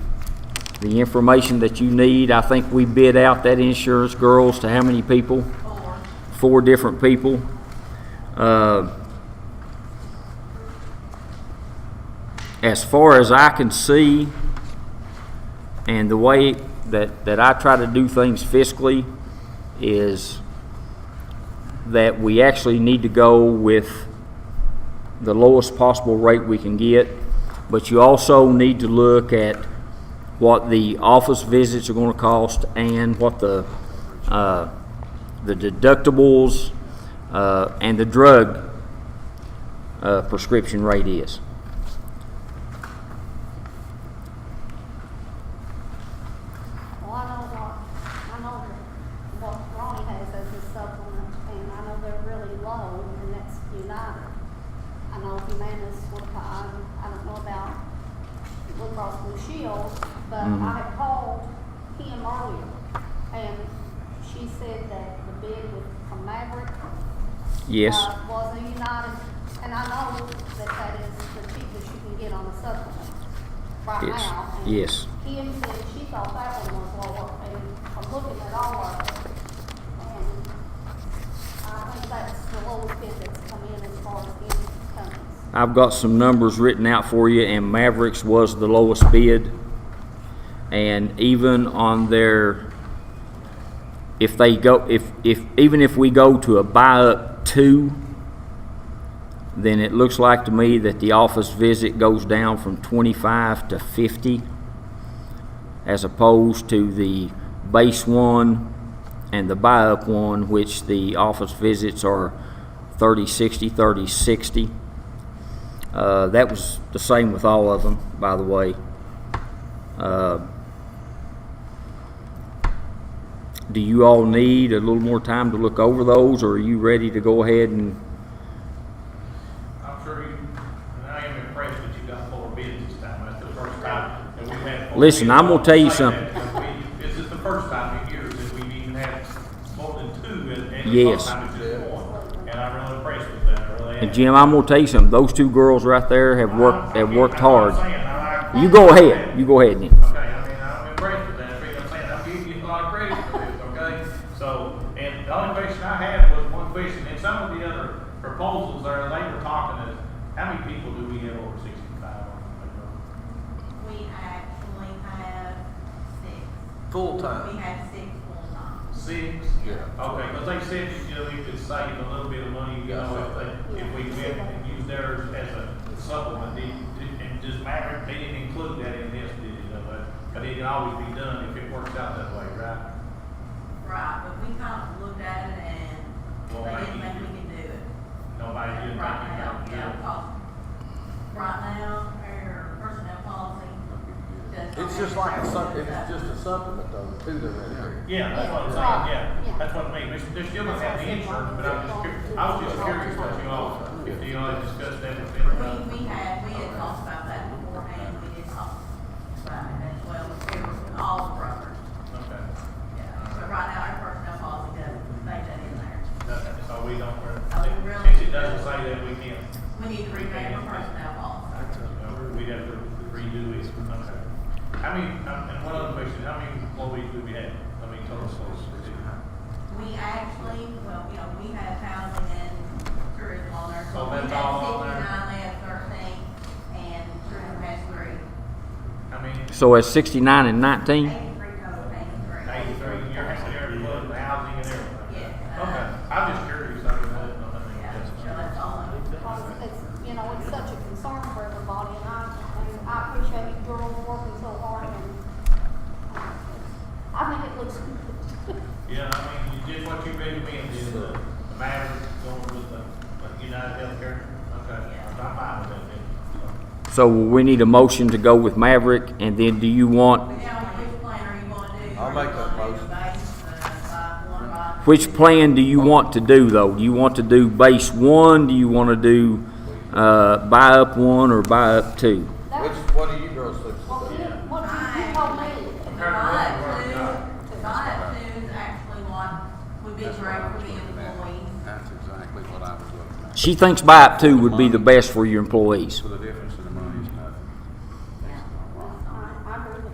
the information that you need. I think we bid out that insurance, girls, to how many people? Four different people. Uh, As far as I can see, and the way that, that I try to do things fiscally is that we actually need to go with the lowest possible rate we can get, but you also need to look at what the office visits are gonna cost and what the, uh, the deductibles, uh, and the drug, uh, prescription rate is. Well, I know what, I know that what Ronnie has as his supplement, and I know they're really low, and that's United. I know Humana's what, I, I don't know about Blue Cross Blue Shield, but I had called him earlier, and she said that the bid was from Maverick. Yes? uh, Was a United, and I know that that is the cheapest you can get on a supplement right Yes, now. and yes. Kim said she thought that one was lower, and I'm looking at all of it, and I think that's the lowest bid that's come in as far as any companies. I've got some numbers written out for you, and Mavericks was the lowest bid. And even on their, if they go, if, if, even if we go to a buy up two, then it looks like to me that the office visit goes down from twenty-five to fifty, as opposed to the base one and the buy up one, which the office visits are thirty, sixty, thirty, sixty. Uh, that was the same with all of them, by the way. Uh, Do you all need a little more time to look over those, or are you ready to go ahead and, I'm sure you, and I am impressed that you got four bids this time. That's the first time that we've had. four Listen, bids. I'm gonna tell you Say that something. because we- This is the first time in years that we've even had more than two and, and the Yes. first time it's just one. And I'm really impressed with that, I really. am. and Jim, I'm gonna tell you something, those two girls right there have worked, have worked That's what I'm hard. saying. I like- You go ahead, you go ahead, Nick. Okay, I mean, I'm impressed with that, you know what I'm saying, I'm giving you a lot of credit for this, okay? So, and the only question I had was one question, and some of the other proposals there, they were talking is, how many people do we have over sixty-five? We actually have six. We Full-time. have six full-time. Six? Yeah. Okay, because they said that, you know, we could save a little bit of money, you know, if, they- if we went and used theirs as a supplement, did, did- and just Maverick, they didn't include that in this, did it, Uh, but it can always be done if it works out that way, right? Right, but we kind of looked at it and Well, they thank didn't think you. we could do it. Nobody did, Right not you now, yeah, because right now, our personnel policy does. not It's just like a, sup- have it's that. just a supplement though, the two that are in there. Yeah, that's what I'm saying, yeah, that's what I mean, there's, there's still not the insurance, but I'm just curious, I was just curious what you all, if you all had discussed that with them. uh, We, we had, we had talked about that beforehand, we did talk about it as well, it was with all the brokers. Okay, Yeah, but right now, our personnel policy doesn't say that in there. That's- so we don't, Oh, really? since it doesn't say that we can, We need to revamp our personnel policy. you know, uh, we'd have to redo it, okay. How many, um, and one other question, how many employees do we have, I mean, total employees? We actually, well, you know, we had housing and tourism on there, so Oh, we had that's all on there. sixty-nine, they had thirteen, and tourism has three. How many, So as sixty-nine and nineteen, Eighty-three total, eighty-three. eighty-three, and you're having every one, the housing and everything? Yeah. Okay, I'm just curious, I mean, I don't know, I mean, Yeah, that's- so that's all of it. Because it's, you know, it's such a concern for everybody, and I, and I appreciate you girls working so hard, and uh, I think it looks good. Yeah, I mean, you did what you recommended, is the the Maverick going with the, like, United Healthcare, okay, I'm fine with that, then. so we need a motion to go with Maverick, and then do you want, Now, which plan are you gonna do? I'll Are you make that gonna do the motion. base, the five, one, five? which plan do you want to do though? Do you want to do base one, do you wanna do, uh, buy up one or buy up two? That was Which, what do you girls think What you, today? what you you told me. Compared to what we've already got. Five, two, five, two is actually what would be great for the employees. That's exactly what I was looking at. She thinks buy up two would be the best for your employees. For the difference